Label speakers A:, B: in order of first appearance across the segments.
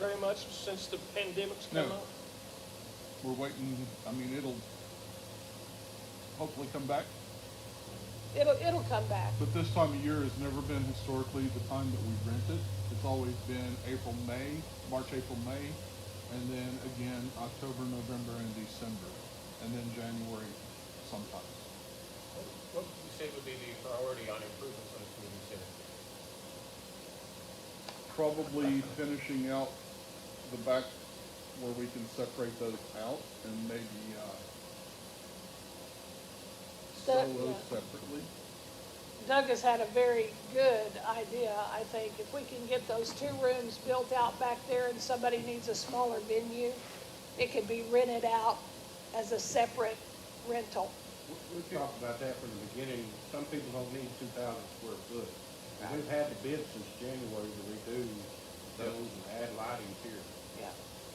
A: very much since the pandemic's come
B: No.
A: up?
B: We're waiting, I mean, it'll hopefully come back,
C: It'll, it'll come back.
B: but this time of year has never been historically the time that we've rented. It's always been April, May, March, April, May, and then again, October, November, and December, and then January sometimes.
D: What would you say would be the priority on improvements on the community center?
B: Probably finishing out the back where we can separate those out and maybe, uh,
C: That-
B: sell those
C: yeah.
B: separately.
C: Doug has had a very good idea, I think. If we can get those two rooms built out back there and somebody needs a smaller venue, it could be rented out as a separate rental.
E: We- We talked about that from the beginning, some people don't need two thousand square foot. And we've had the bid since January to redo those and add lighting here,
C: Yeah.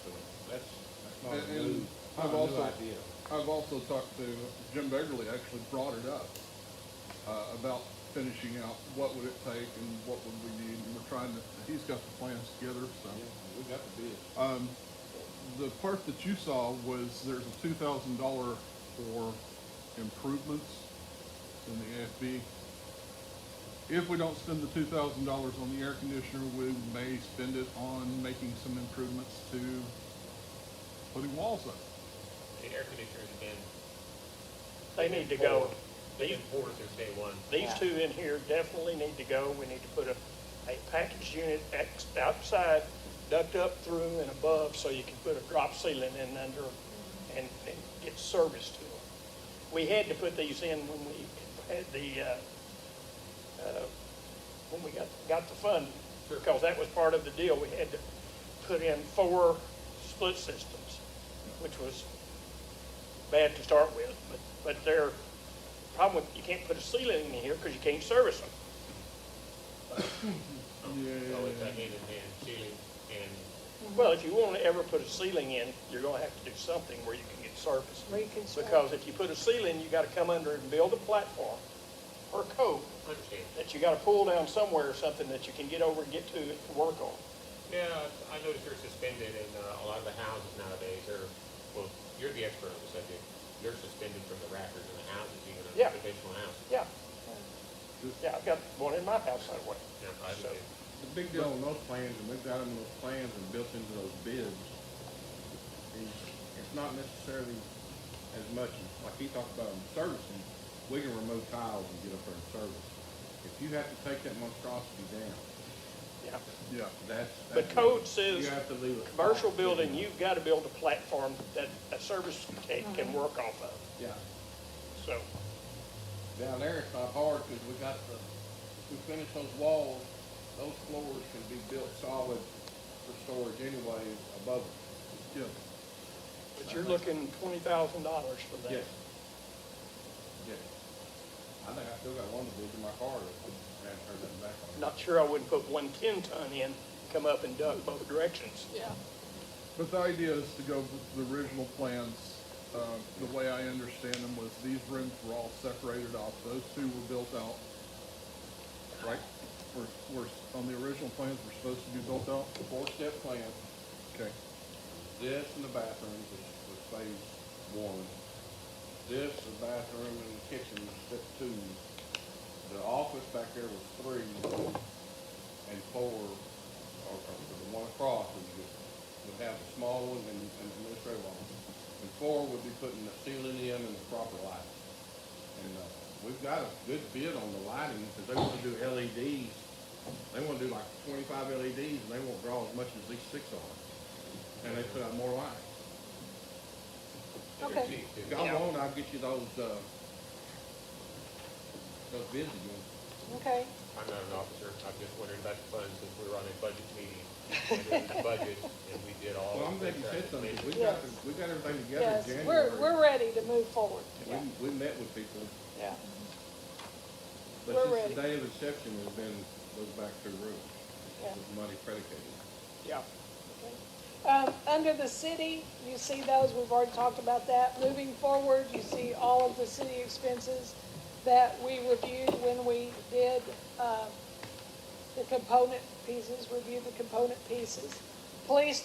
E: so that's, that's not
B: And-
E: a new,
B: and
E: not
B: I've
E: a new
B: also-
E: idea.
B: I've also talked to, Jim Begley actually brought it up, uh, about finishing out what would it take and what would we need, and we're trying to, he's got the plans together, so.
E: Yeah, we got the bid.
B: Um, the part that you saw was there's a two thousand dollar for improvements in the AFB. If we don't spend the two thousand dollars on the air conditioner, we may spend it on making some improvements to putting walls up.
D: The air conditioners have been.
A: They need to go.
D: They've
A: These,
D: been poor since day one.
A: these two in here definitely need to go. We need to put a, a package unit ex- outside, ducked up through and above, so you can put a drop ceiling in under 'em and, and get service to them. We had to put these in when we had the, uh, uh, when we got, got the funding,
D: Sure.
A: because that was part of the deal. We had to put in four split systems, which was bad to start with, but, but they're, problem with, you can't put a ceiling in here because you can't service them.
B: Yeah.
D: Oh, Always had hand in hand, ceiling and
A: Well, if you want to ever put a ceiling in, you're gonna have to do something where you can get service.
C: Reconstruct.
A: Because if you put a ceiling, you gotta come under and build a platform or coat
D: understand.
A: that you gotta pull down somewhere or something that you can get over and get to and work on.
D: Yeah, I noticed they're suspended in uh, a lot of the houses nowadays are, well, you're the expert on the subject. They're suspended from the rafters in the houses, even in
A: Yeah.
D: a traditional house.
A: Yeah. Yeah, I've got one in my house that way.
D: Yeah, I
A: So-
D: understand.
E: The big deal on those plans, and we've got them in those plans and built into those bids, is it's not necessarily as much, as- like he talked about in servicing, we can remove tiles and get up there and service. If you have to take that monstrosity down,
A: Yeah.
B: Yeah.
E: that's.
A: The
E: that's-
A: code says
E: You have to leave it.
A: Commercial building, you've gotta build a platform that a service can, can work off of,
E: Yeah,
A: so.
E: down there it's not hard, cause we got the, we finished those walls, those floors can be built solid for storage anyway above them.
B: Yeah,
A: But you're looking twenty thousand dollars for that.
E: Yes. Yes. I think I still got one to do in my car, I haven't heard that back on.
A: Not sure I wouldn't put one ten ton in, come up and duck both directions.
C: Yeah.
B: but the idea is to go with the original plans, uh, the way I understand them was these rooms were all separated off, those two were built out. Right? Were, were, on the original plans were supposed to be built out?
E: Four-step plan,
B: Okay.
E: this and the bathrooms is, was phase one. This, the bathroom and the kitchen was step two. The office back there was three, and four, or, or the one across would be, would have the small one and, and the administrative office. And four would be putting the ceiling in and the proper lighting. And, uh, we've got a good bid on the lighting, because they wanna do LEDs. They wanna do like twenty-five LEDs, and they won't draw as much as these six are. And they put out more lights.
D: They're
C: Okay.
D: cheap, too.
E: Go
A: Yeah.
E: on, I'll get you those, uh, those bids again.
C: Okay.
D: I'm not an officer, I'm just wondering about the funds, since we were on a budget meeting, and it was the budget, and we did all.
E: Well, I'm
D: the
E: glad you said something, 'cause we
C: Yes.
E: got, the- we got everything together
C: Yes,
E: in January.
C: we're, we're ready to move forward. Yeah.
E: We, we met with people,
C: Yeah.
E: but
C: We're
E: since
C: ready.
E: the day of inception has been, goes back to roof,
C: Yeah.
E: with money predicated.
A: Yeah.
C: Um, under the city, you see those, we've already talked about that. Moving forward, you see all of the city expenses that we reviewed when we did, uh, the component pieces, review the component pieces. police